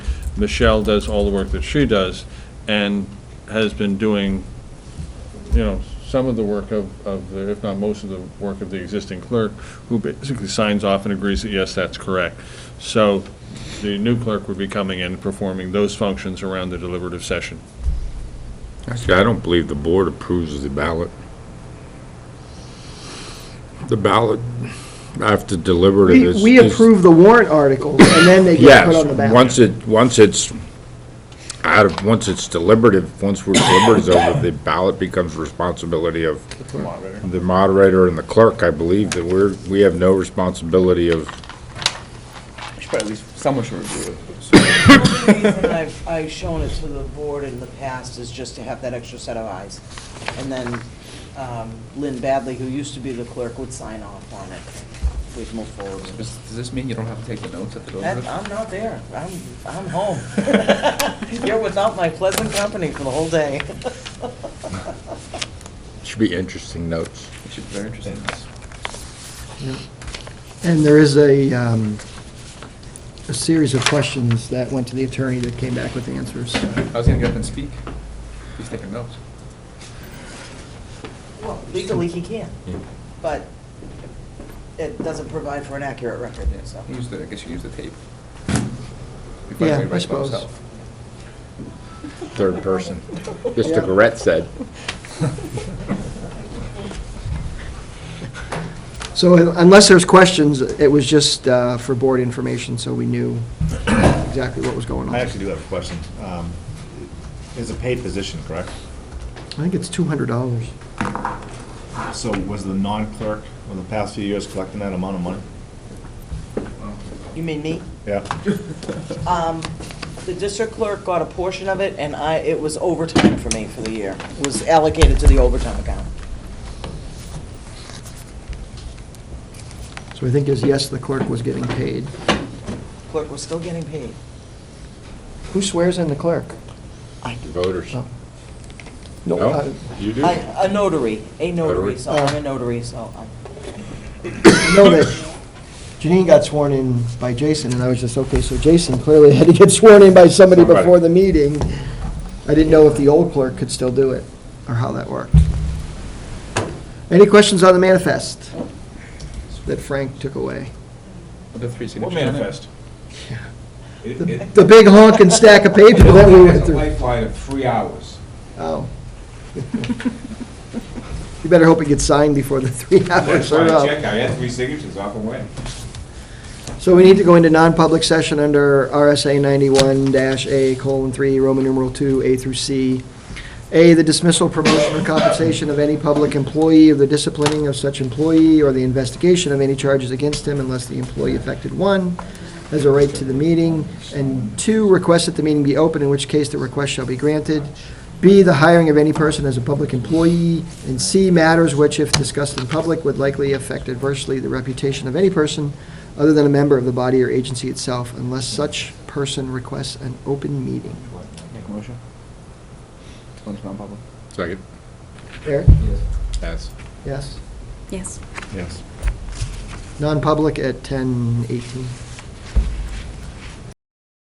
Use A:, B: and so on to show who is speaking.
A: Michelle does all the work that she does, and has been doing, you know, some of the work of, of, the- if not most of the work of the existing clerk, who basically signs off and agrees that, yes, that's correct. So the new clerk would be coming in, performing those functions around the deliberative session.
B: Actually, I don't believe the board approves the ballot. The ballot, after deliberative
C: We
B: is...
C: we
B: is-
C: approve the warrant articles, and then they get put on the
B: Yes,
C: ballot.
B: once it, once it's out of, once it's deliberative, once we're deliberative is over, the ballot becomes responsibility of the moderator and the clerk, I believe, that we're, we have no responsibility of,
D: Should probably at least, someone should review it.
E: The reason I've, I've shown it to the board in the past is just to have that extra set of eyes. And then um, Lynn Badley, who used to be the clerk, would sign off on it. We'd move forward. with it.
D: Does does this mean you don't have to take the notes at the door?
E: That- I'm not there. I'm, I'm home. You're without my pleasant company for the whole day.
B: should be interesting notes.
D: It should be very interesting.
C: And there is a, um, a series of questions that went to the attorney that came back with answers.
D: I was gonna get up and speak. He's taking notes.
E: Well, legally, he can,
B: Yeah.
E: but it doesn't provide for an accurate record, so.
D: Use the, I guess you can use the tape. He probably
C: Yeah, I
D: writes by
C: suppose.
D: himself.
B: Third person.
C: Yeah.
B: Mr. Garrett said.
C: So uh, unless there's questions, it was just uh, for board information, so we knew exactly what was going on.
F: I actually do have a question. Um, It's a paid position, correct?
C: I think it's $200.
F: So was the non-clerk over the past few years collecting that amount of money?
E: You mean me?
F: Yeah.
E: Um, The district clerk got a portion of it, and I, it was overtime for me for the year. It was allocated to the overtime account.
C: So I think is, yes, the clerk was getting paid.
E: Clerk was still getting paid.
C: Who swears in the clerk?
B: Voters.
C: No.
B: No?
C: uh,
B: You do?
E: I- A notary, a notary,
B: Notary.
E: so I'm a notary, so I'm.
C: I know that Janine got sworn in by Jason, and I was just, okay, so Jason clearly had to get sworn in by somebody
B: Somebody.
C: before the meeting. I didn't know if the old clerk could still do it, or how that worked. Any questions on the manifest that Frank took away?
D: With the three signatures.
F: What
D: on it.
F: manifest?
G: It- it-
C: The big honking stack of paper that we went
G: It's a
C: through.
G: lifeline of three hours.
C: Oh. You better hope it gets signed before the three
G: That's
C: hours
G: why
C: are
G: I
C: up.
G: checked, I had three signatures off and away.
C: So we need to go into non-public session under RSA 91-A, colon, 3, Roman numeral 2, A through C. A, the dismissal, promotion, or compensation of any public employee, or the disciplining of such employee, or the investigation of any charges against him unless the employee affected, one, has a right to the meeting, and two, request that the meeting be open, in which case the request shall be granted. B, the hiring of any person as a public employee, and C, matters which, if discussed in public, would likely affect adversely the reputation of any person other than a member of the body or agency itself, unless such person requests an open meeting.
D: Make a motion. To go into non-public.
B: Second.
C: Eric?
B: Yes.
C: Yes.
H: Yes.
F: Yes.
C: Non-public at 10:18.